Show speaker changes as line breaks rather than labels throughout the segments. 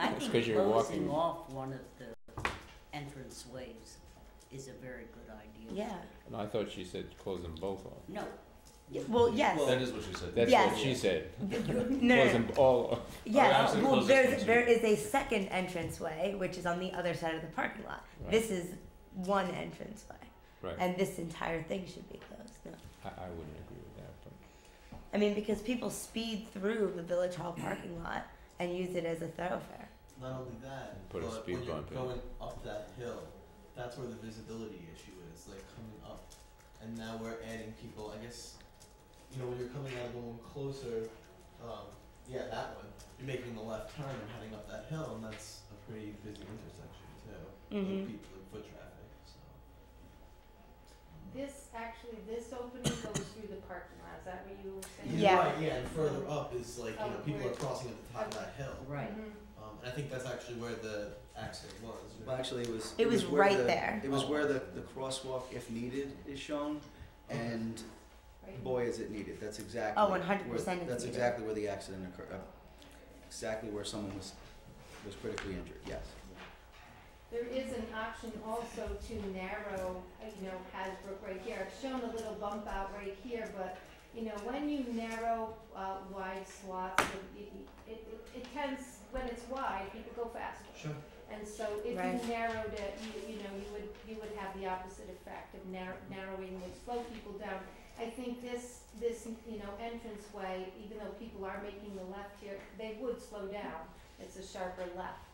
it's 'cause you're
I think
walking.
closing off one of the entrance ways is a very good idea.
Yeah.
No, I thought she said close them both off.
No,
Y- Well, yes.
That is what she said.
That's
Yes.
what she said.
No, no,
Close
no.
them all off.
Oh,
Yes.
yeah,
well,
absolutely.
there's, there is a second entranceway, which is on the other side of the parking lot.
Right.
This is one entranceway.
Right.
And this entire thing should be closed. No.
I, I wouldn't agree with that, but.
I mean, because people speed through the Village Hall parking lot and use it as a thoroughfare.
Not only that,
Put a
Uh, but
speed
when you're
bump in.
going up that hill, that's where the visibility issue is, like coming up. And now we're adding people, I guess, you know, when you're coming out of the one closer, um, yeah, that one, you're making the left turn and heading up that hill, and that's a pretty busy intersection too. with
Mhm.
people and foot traffic, so.
This, actually, this opening goes through the parking lot, is that what you were saying?
You're
Yeah.
right, yeah, and further up is like, you know,
Oh,
people are
where-
crossing at the top of that hill.
right.
Mhm.
Um, and I think that's actually where the accident was. right?
Well, actually, it was.
It was
where
right
the-
there.
It was where the, the crosswalk, if needed, is shown, and
Right.
boy, is it needed. That's exactly.
Oh, 100%
where-
it's
That's
needed.
exactly where the accident occurred. uh, Exactly where someone was was critically injured. Yes.
There is an option also to narrow, uh, you know, Hasbrook right here. I've shown a little bump out right here, but, you know, when you narrow uh, wide swaths, it- it, it, it tends, when it's wide, people go faster.
Sure.
And so if
Right.
you narrowed it, you, you know, you would, you would have the opposite effect of narrow, narrowing would slow people down. I think this, this, you know, entranceway, even though people are making the left here, they would slow down. It's a sharper left,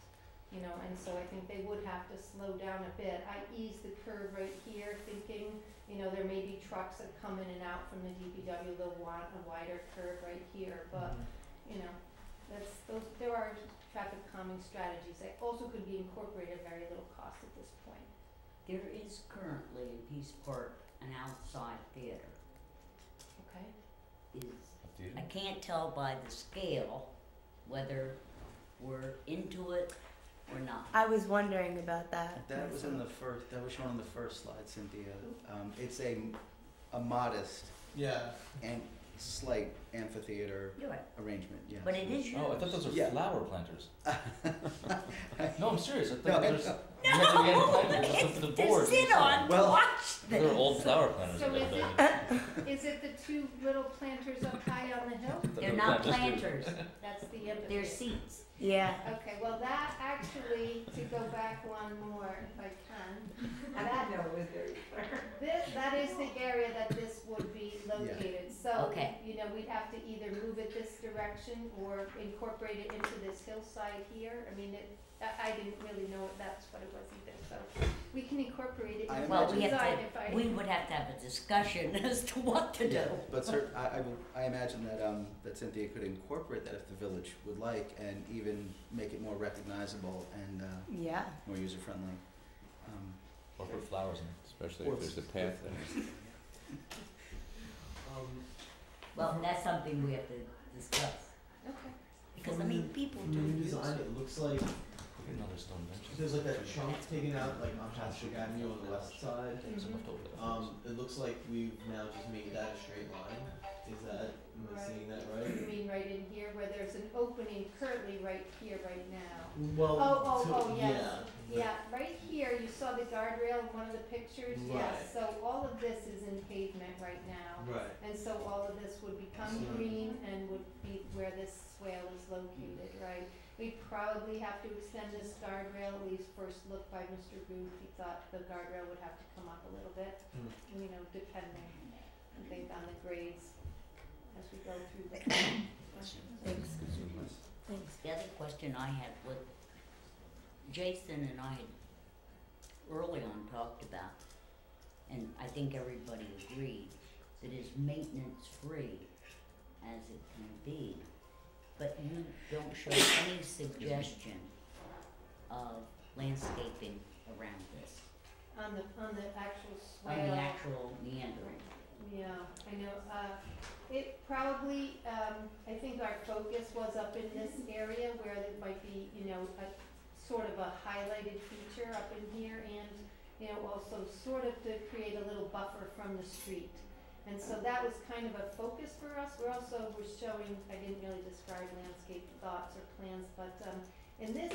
you know, and so I think they would have to slow down a bit. I ease the curve right here thinking, you know, there may be trucks that come in and out from the DPW, they'll want a wider curve right here, but, you know, that's, those, there are traffic calming strategies that also could be incorporated at very little cost at this point.
There is currently in Peace Park an outside theater.
Okay.
Is
Do you?
I can't tell by the scale whether we're into it or not.
I was wondering about that.
That was in the first. That was shown on the first slide, Cynthia. Um, it's a a modest
Yeah.
and slight amphitheater
You're right,
arrangement. Yes.
but it is yours.
Oh, I thought those were
Yeah.
flower planters. no, I'm serious. I thought
No,
those were meant to be any plant, just up to the
To
board.
sit on, to
Well-
watch
They're
this.
old flower planters.
So
that
is
they-
it, is it the two little planters up high on the hill?
that
They're
were
not
planted.
planters,
That's the end of
they're
it.
seats.
Yeah.
Okay, well, that actually, to go back one more if I can, that,
know it was very
this, that is the area that this would be located. So,
Okay.
you know, we'd have to either move it this direction or incorporate it into this hillside here. I mean, it, I, I didn't really know that's what it was either, so we can incorporate it
I
into
Well,
the
we have
design
to-
if I.
We would have to have a discussion as to what to do.
Yeah, but cer- I, I, will- I imagine that, um, that Cynthia could incorporate that if the village would like and even make it more recognizable and, uh,
Yeah.
more user friendly. Um,
Or put flowers in.
Especially
Or-
if there's a path there.
Um,
Well, that's something we have to discuss,
Okay.
because I mean, people do
New
use
design,
it.
it looks like
Another stone bench.
there's like that chunk taken out like on Patrick Avenue on the west side.
There's some
Mhm.
left over there.
Um, it looks like we've now just made that a straight line. Is that, am I seeing that
You
right?
mean right in here where there's an opening currently right here, right now?
Well,
Oh, oh,
so-
oh, yes.
yeah.
Yeah, right here, you saw the guardrail in one of the pictures, yes, so all of this is in pavement right now.
Right.
And so all of this would become
Mhm.
green and would be where this swale is located, right? We probably have to extend this guardrail, at least first look by Mr. Booth, he thought the guardrail would have to come up a little bit,
Hmm.
you know, depending, I think, on the grades as we go through the.
Thanks. Thanks.
The other question I had was, Jason and I had early on talked about, and I think everybody agreed, that is maintenance free as it can be, but you don't show any suggestion of landscaping around this,
On the, on the actual
on
swale.
the actual meandering.
Yeah, I know, uh, it probably, um, I think our focus was up in this area where there might be, you know, a sort of a highlighted feature up in here and, you know, also sort of to create a little buffer from the street. And so that was kind of a focus for us, we're also, we're showing, I didn't really describe landscape thoughts or plans, but, um, in this